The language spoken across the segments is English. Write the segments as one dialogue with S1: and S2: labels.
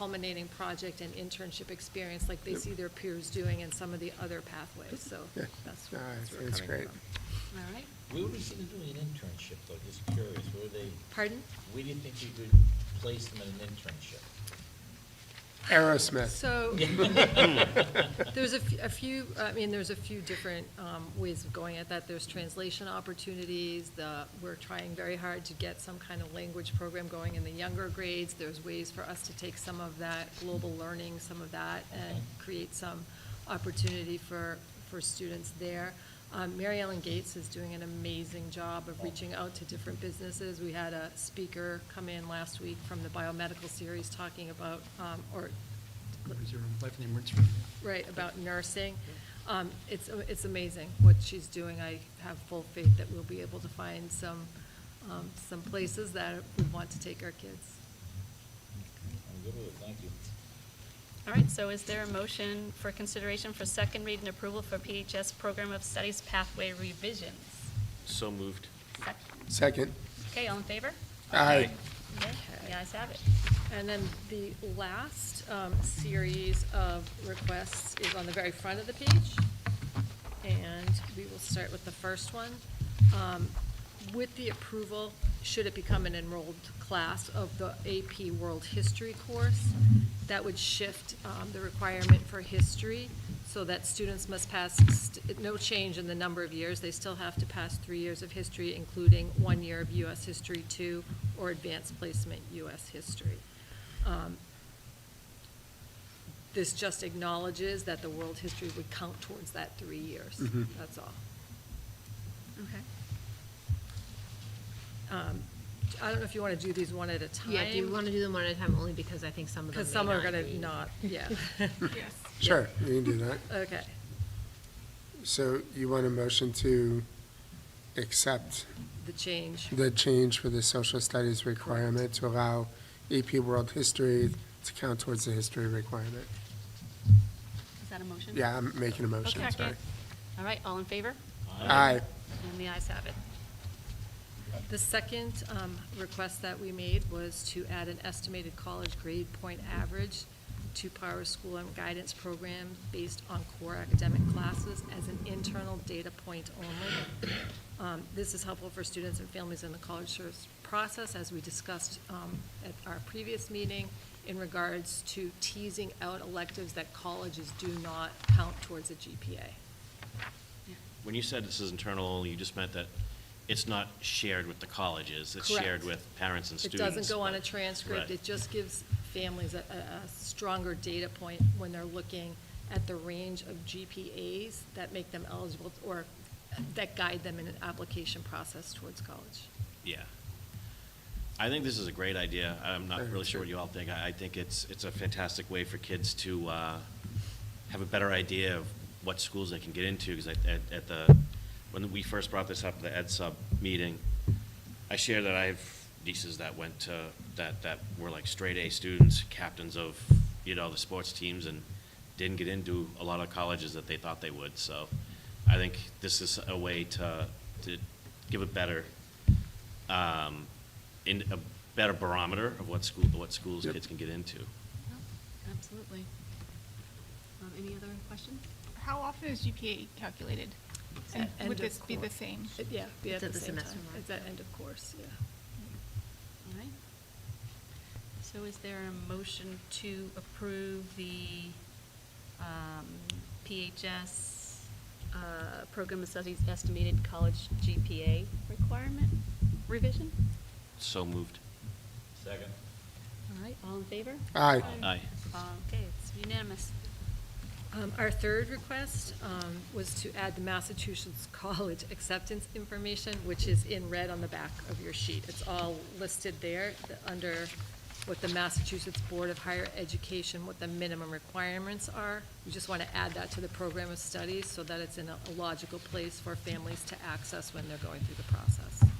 S1: culminating project and internship experience like they see their peers doing in some of the other pathways, so
S2: Yeah.
S1: that's.
S2: No,
S1: that's
S2: it's-
S1: where we're
S2: it's
S1: coming
S2: great.
S1: from. All right,
S3: We were thinking of doing an internship, though, just curious, were they,
S1: pardon?
S3: we didn't think we could place them in an internship.
S2: Aerosmith.
S1: So, there's a f- a few, I mean, there's a few different um, ways of going at that. There's translation opportunities, the, we're trying very hard to get some kind of language program going in the younger grades. There's ways for us to take some of that global learning, some of that, and
S3: Okay.
S1: create some opportunity for, for students there. Um, Mary Ellen Gates is doing an amazing job of reaching out to different businesses. We had a speaker come in last week from the biomedical series talking about, um, or
S4: Is there life in the emergency room?
S1: right, about nursing. Um, It's, it's amazing what she's doing. I have full faith that we'll be able to find some, um, some places that we want to take our kids.
S3: I'm good with it, thank you.
S5: All right, so is there a motion for consideration for second read and approval for PHS Program of Studies Pathway Revisions?
S6: So moved.
S5: Sec-
S2: Second.
S5: Okay, all in favor?
S2: Aye.
S5: Okay,
S1: Okay.
S5: The ayes have it.
S1: And then the last um, series of requests is on the very front of the page. And we will start with the first one. Um, With the approval, should it become an enrolled class of the AP World History course, that would shift um, the requirement for history so that students must pass, st- no change in the number of years. They still have to pass three years of history, including one year of US History Two or Advanced Placement US History. Um, This just acknowledges that the world history would count towards that three years,
S2: Mhm.
S1: that's all.
S5: Okay.
S1: Um, I don't know if you want to do these one at a time.
S7: Yeah, do you want to do them one at a time, only because I think some of them
S1: Because
S7: may
S1: some are
S7: not
S1: going
S7: be-
S1: to not, yeah.
S7: Yes.
S2: Sure, we can do that.
S1: Okay,
S2: So you want a motion to accept
S1: the change.
S2: the change for the social studies requirement to allow AP World History to count towards the history requirement?
S5: Is that a motion?
S2: Yeah, I'm making a motion,
S5: Okay.
S2: sorry.
S5: All right, all in favor?
S2: Aye.
S5: And the ayes have it.
S1: The second um, request that we made was to add an estimated college grade point average to Power School and Guidance Program based on core academic classes as an internal data point only. Um, This is helpful for students and families in the college search process, as we discussed um, at our previous meeting, in regards to teasing out electives that colleges do not count towards a GPA.
S6: When you said this is internal only, you just meant that it's not shared with the colleges, it's
S1: Correct.
S6: shared with parents and
S1: It
S6: students.
S1: doesn't go on a
S6: but-
S1: transcript,
S6: Right.
S1: it just gives families a, a, a stronger data point when they're looking at the range of GPAs that make them eligible, or that guide them in an application process towards college.
S6: Yeah. I think this is a great idea. I'm
S2: I
S6: not
S2: do
S6: really sure what
S2: too.
S6: you all think. I, I think it's, it's a fantastic way for kids to, uh, have a better idea of what schools they can get into, because at, at- at the, when we first brought this up at the Ed Sub meeting, I share that I have nieces that went to, that, that were like straight A students, captains of, you know, the sports teams, and didn't get into a lot of colleges that they thought they would, so I think this is a way to, to give a better, um, in, a better barometer of what school, what schools
S2: Yep.
S6: kids can get into.
S5: Absolutely. Any other questions?
S8: How often is GPA calculated? And
S1: At
S8: would
S1: end of
S8: this be the
S1: course.
S8: same?
S1: It- Yeah, be at
S7: It's
S1: the
S7: at the
S1: same
S7: semester
S1: time,
S7: mark.
S1: it's at end of course, yeah.
S5: All right. So is there a motion to approve the um, PHS uh, Program of Studies Estimated College GPA Requirement Revision?
S6: So moved.
S3: Second.
S5: All right, all in favor?
S2: Aye.
S6: Aye.
S5: Okay, it's unanimous.
S1: Um, Our third request um, was to add the Massachusetts College acceptance information, which is in red on the back of your sheet. It's all listed there, the- under what the Massachusetts Board of Higher Education, what the minimum requirements are. We just want to add that to the program of studies so that it's in a a logical place for families to access when they're going through the process.
S5: Okay.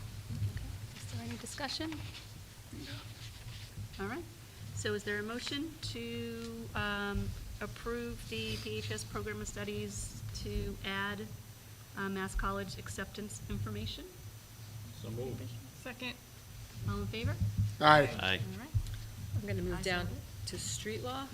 S5: Is there any discussion? All right, so is there a motion to um, approve the PHS Program of Studies to add uh, Mass College acceptance information?
S3: So moved.
S8: Second.
S5: All in favor?
S2: Aye.
S6: Aye.
S5: All right.
S1: I'm going to move
S5: Ayes
S1: down
S5: have
S1: to street law.